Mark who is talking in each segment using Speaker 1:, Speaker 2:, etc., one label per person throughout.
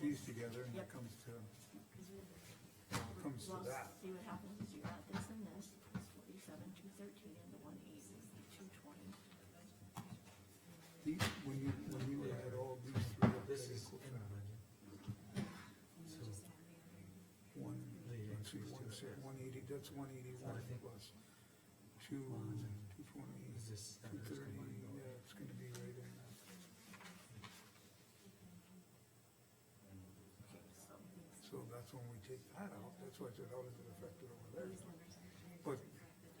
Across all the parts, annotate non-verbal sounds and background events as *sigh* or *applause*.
Speaker 1: these together and it
Speaker 2: Yep.
Speaker 1: comes to,
Speaker 2: Because
Speaker 1: it comes to that.
Speaker 2: See what happens is you add this and this, it's forty-seven, two thirteen, and the one eighty, two twenty.
Speaker 1: The- When you, when you add all these three up, that
Speaker 3: This is
Speaker 1: equals
Speaker 3: in
Speaker 1: uh,
Speaker 3: the budget. So,
Speaker 1: one,
Speaker 3: The
Speaker 1: let's see,
Speaker 3: increase
Speaker 1: one,
Speaker 3: to
Speaker 1: six,
Speaker 3: this.
Speaker 1: one eighty, that's one eighty-one
Speaker 3: I think-
Speaker 1: plus two, two twenty,
Speaker 3: is this
Speaker 1: two
Speaker 3: numbers
Speaker 1: thirty,
Speaker 3: combined or-
Speaker 1: yeah, it's gonna be right in that. So that's when we take that out, that's why I said, how does it affect it over there? But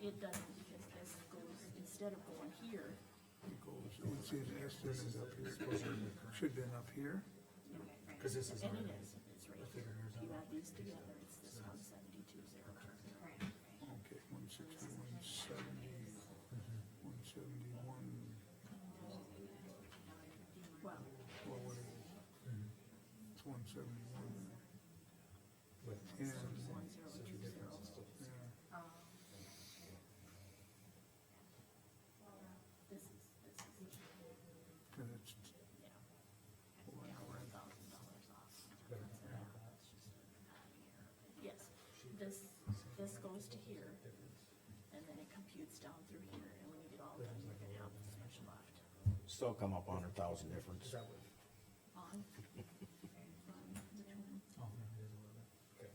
Speaker 2: It doesn't, because this goes, instead of going here,
Speaker 1: it goes, let's see, the estimate is up here, should been up here,
Speaker 3: Cause this is.
Speaker 2: and
Speaker 3: already-
Speaker 2: it is, it's right here.
Speaker 3: I figure yours
Speaker 2: You
Speaker 3: out.
Speaker 2: add these together, it's this one seventy-two, zero, two, zero.
Speaker 1: okay, one sixty, one seventy, one seventy-one,
Speaker 2: Well,
Speaker 1: well, what is it?
Speaker 3: Mhm.
Speaker 1: It's one seventy-one,
Speaker 3: But
Speaker 1: and, uh,
Speaker 2: one, zero,
Speaker 3: such a
Speaker 2: two, zero.
Speaker 3: difference is still.
Speaker 1: yeah.
Speaker 2: This is, this is,
Speaker 1: Cause it's,
Speaker 2: yeah. Yeah, we're a thousand dollars off.
Speaker 3: better than half of that.
Speaker 2: Yes, this, this goes to here, and then it computes down through here, and when you get all done, you're gonna have this much left.
Speaker 4: Still come up on a thousand difference.
Speaker 3: Is that what?
Speaker 2: On. on the twin.
Speaker 3: Oh, no, it is a little bit.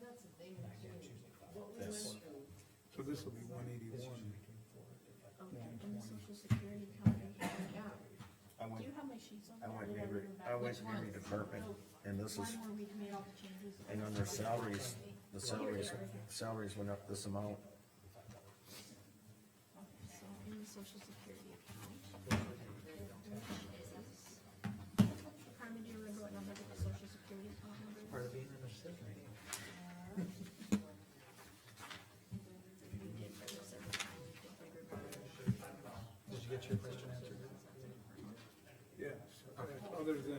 Speaker 5: That's the thing,
Speaker 3: I can't choose like five.
Speaker 5: what we went through,
Speaker 1: so this will be one
Speaker 3: It's
Speaker 1: eighty-one,
Speaker 3: usually between four and five.
Speaker 2: Okay, and the social security company, yeah.
Speaker 4: I
Speaker 2: Do
Speaker 4: went,
Speaker 2: you have my sheets on?
Speaker 4: I
Speaker 2: there?
Speaker 4: went
Speaker 2: Did
Speaker 4: every,
Speaker 2: leave them
Speaker 4: I
Speaker 2: back?
Speaker 4: went every department, and this
Speaker 2: Oh, One
Speaker 4: is,
Speaker 2: where we made all the changes.
Speaker 4: and on their salaries, the salaries, salaries went up this
Speaker 2: Okay,
Speaker 4: amount.
Speaker 2: So in the social security account. Carmen, do you remember what number the social security account number is?
Speaker 3: Part of being in the city.
Speaker 2: We did for this every time, we did for everybody.
Speaker 3: Did you get your question answered?
Speaker 1: yes, other than,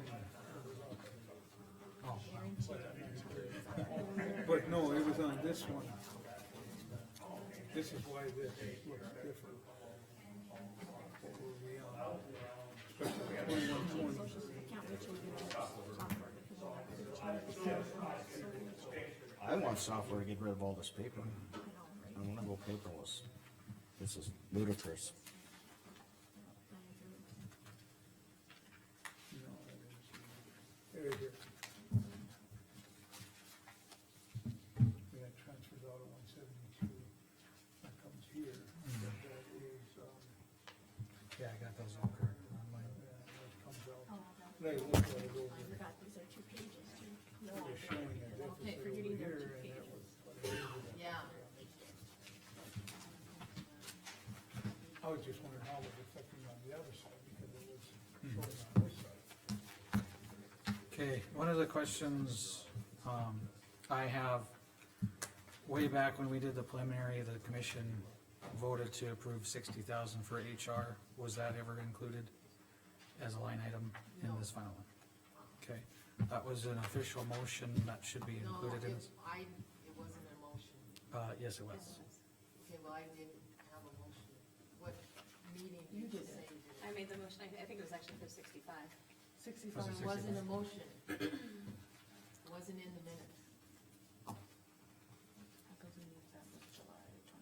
Speaker 3: Oh,
Speaker 1: but no, it was on this one. This is why this looks different. What were we on? Especially twenty-one, twenty,
Speaker 2: Account which we did software because we'll have to change the software.
Speaker 4: I want software to get rid of all this
Speaker 2: I
Speaker 4: paper.
Speaker 2: know, right?
Speaker 4: I wanna go paperless. This is ludicrous.
Speaker 1: no, I didn't see it. There it is. And that transfers out of one seventy-two, that comes here, that is, um,
Speaker 3: yeah, I got those all correct on mine.
Speaker 1: yeah, that comes out.
Speaker 2: Oh, I got-
Speaker 1: They look like it
Speaker 2: I
Speaker 1: over there.
Speaker 2: forgot, these are two pages too. No,
Speaker 1: They're showing a
Speaker 2: Okay,
Speaker 1: deficit over
Speaker 2: forgetting they're two
Speaker 1: here, and that
Speaker 2: pages.
Speaker 1: was what it is.
Speaker 5: yeah.
Speaker 1: I was just wondering how it was affecting on the other side, because it was showing on this side.
Speaker 3: Okay, one of the questions, um, I have, way back when we did the preliminary, the commission voted to approve sixty thousand for HR, was that ever included as a line item in this final one? Okay, that was an official motion that should be
Speaker 5: No,
Speaker 3: included in,
Speaker 5: it, I, it wasn't a motion.
Speaker 3: uh, yes, it was.
Speaker 5: Okay, well, I didn't have a motion. What meeting did you say? you did?
Speaker 6: I made the motion, I, I think it was actually for sixty-five.
Speaker 5: Sixty-five
Speaker 3: Was it
Speaker 5: wasn't a motion. *coughs* Wasn't in the minutes.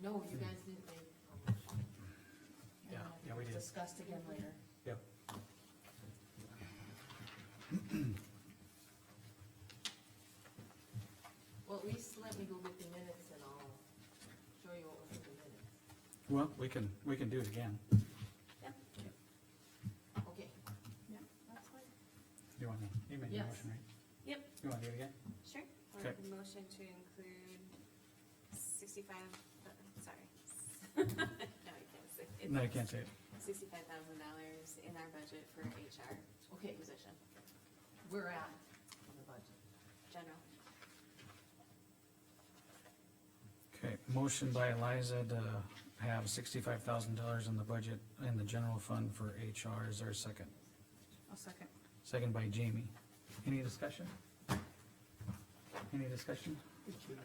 Speaker 5: No, you guys didn't make a motion.
Speaker 3: Yeah, yeah, we did.
Speaker 2: Discussed again later.
Speaker 3: Yep.
Speaker 5: Well, at least let me go get the minutes and I'll show you what was in the minutes.
Speaker 3: Well, we can, we can do it again,
Speaker 5: Okay,
Speaker 2: Yeah, that's fine.
Speaker 3: you wanna, you made the
Speaker 5: Yes.
Speaker 3: motion, right?
Speaker 6: Yep.
Speaker 3: You wanna do it again?
Speaker 6: Sure. I'll
Speaker 3: Okay.
Speaker 6: make a motion to include sixty-five, uh, sorry. *laughs* No,
Speaker 3: No,
Speaker 6: I can't say. it.
Speaker 3: you can't say it.
Speaker 6: Sixty-five thousand dollars in our budget for HR
Speaker 5: okay,
Speaker 6: position,
Speaker 5: we're at on the budget.
Speaker 6: general.
Speaker 3: Okay, motion by Eliza to have sixty-five thousand dollars in the budget in the general fund for HR. Is there a second?
Speaker 6: I'll second.
Speaker 3: Second by Jamie. Any discussion? Any discussion?
Speaker 1: It's in